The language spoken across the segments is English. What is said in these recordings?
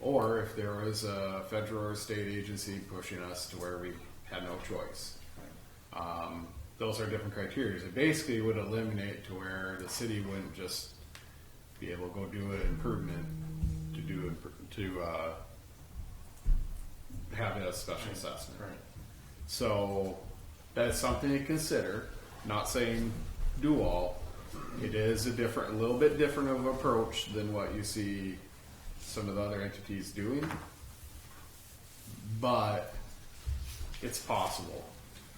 or if there was a federal or state agency pushing us to where we had no choice. Um, those are different criteria. It basically would eliminate to where the city wouldn't just be able to go do an improvement to do, imp- to, uh, have a special assessment. Right. So that's something to consider. Not saying do all. It is a different, a little bit different of approach than what you see some of the other entities doing. But it's possible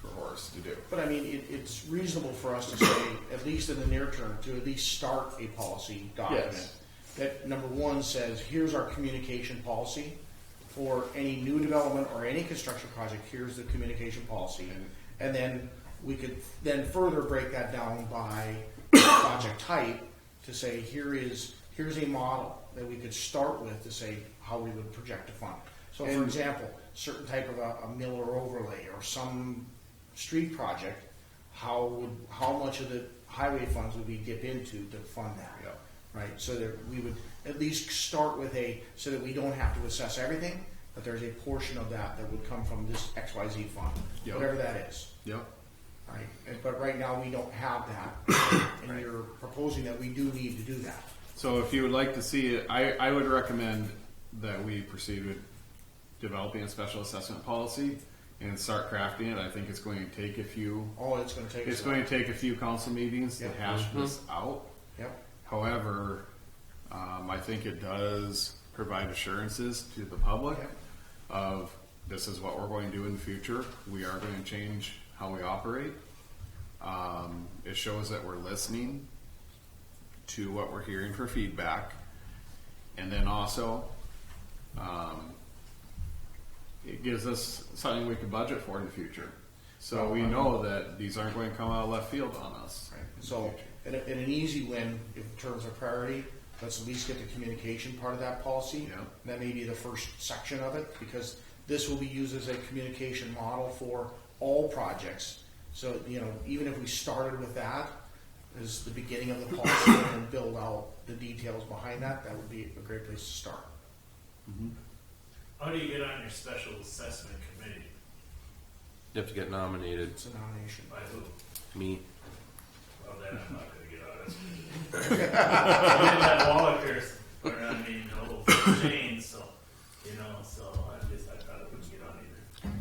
for Horace to do. But I mean, it, it's reasonable for us to say, at least in the near term, to at least start a policy document. Yes. That number one says, here's our communication policy for any new development or any construction project, here's the communication policy. And then we could then further break that down by project type to say, here is, here's a model that we could start with to say how we would project a fund. So for And- example, certain type of a, a mill or overlay or some street project, how would, how much of the highway funds would we dip into to fund that? Yeah. Right, so that we would at least start with a, so that we don't have to assess everything, but there's a portion of that that would come from this X, Y, Z fund, Yeah. whatever that is. Yep. Right, And- but right now, we don't have that, and you're proposing that we do need to do that. So if you would like to see it, I, I would recommend that we proceed with developing a special assessment policy and start crafting it. I think it's going to take a few All it's gonna take is. It's going to take a few council meetings to Yep. hash this out. Yep, However, um, I think it does provide assurances to the public Yep. of this is what we're going to do in the future. We are going to change how we operate. Um, it shows that we're listening to what we're hearing for feedback. And then also, um, it gives us something we can budget for in the future. So we know that these aren't going to come out of left field on us. right, so, and, a- and an easy win in terms of priority, let's at least get the communication part of that policy. Yeah. And That may be the first section of it, because this will be used as a communication model for all projects. So, you know, even if we started with that as the beginning of the policy and then build out the details behind that, that would be a great place to start. How do you get on your special assessment committee? You have to get nominated. It's a nomination. By who? Me. Well, then I'm not gonna get on it. And that Wallachers are, I mean, old chain, so, you know, so I just, I thought I wouldn't get on either.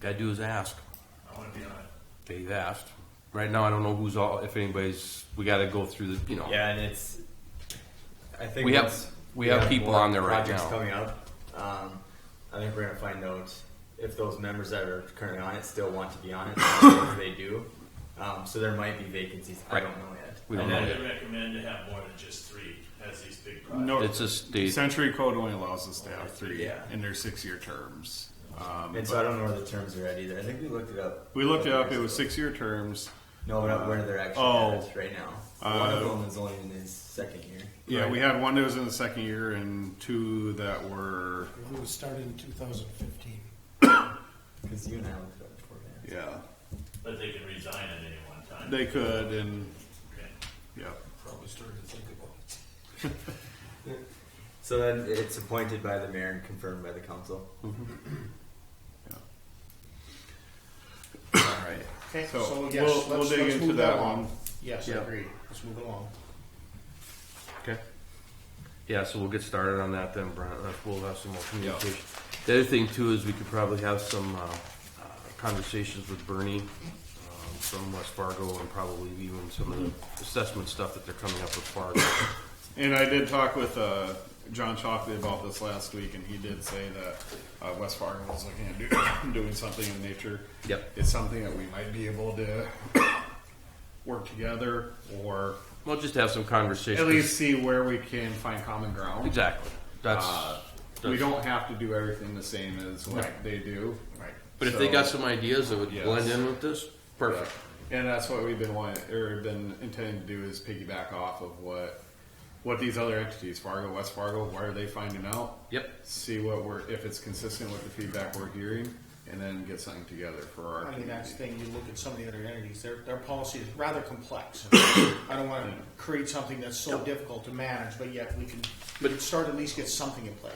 Gotta do is ask. I wanna be on it. They've asked. Right now, I don't know who's all. If anybody's, we gotta go through the. You know. Yeah, and it's. I think We have- once we have people more on there right projects now. coming up. Um, I think we're gonna find out if those members that are currently on it still want to be on it. if they do, um, so there might be vacancies. Right. I don't know yet. We don't And know I yet. would recommend to have more than just three, as these big projects. No, It's a state. Century Code only allows us to have three Yeah. in their six-year terms. Um, And so I don't know where the terms are at either. I think we looked it up. we looked it up. It Years was ago. six-year terms. No, but not where they're actually Oh. at right now. Uh, One of them is only in his second year. Yeah, we had one that was in the second year and two that were It was started in 2015. Because you and I looked it up before. Yeah. yeah But they can resign at any one time. they could and Okay. yeah Probably started to think about it. So then it's appointed by the mayor and confirmed by the council. all right. Okay, So so we'll- yes, we'll let's, dig let's into move that that along. one. Yes, I Yeah. agree. Let's move along. Okay. Yeah, so we'll get started on that then, Brent. Uh, We'll have some more communication. Yeah. The other thing too is we could probably have some uh, uh, conversations with Bernie um, from West Fargo and probably even some of the assessment stuff that they're coming up with Fargo. And I did talk with uh, John Chalkley about this last week, and he did say that uh, West Fargo was looking at do, doing something in nature. Yep. It's something that we might be able to work together or We'll just have some conversations. at least see where we can find common ground. Exactly. That's. Uh, we that's- don't have to do everything the same as what Right. they do. Right. But if they got So- some ideas that would Yes. blend in with this, perfect. And that's what we've been wanting, or been intending to do is piggyback off of what, what these other entities, Fargo, West Fargo, what are they finding out? Yep. See what we're, if it's consistent with the feedback we're hearing, and then get something together for our I mean, that's community. the thing, you look at some of the other entities, their, their policy is rather complex. I don't wanna create something that's so difficult to manage, but yet we can, we But- can start at least get something in place.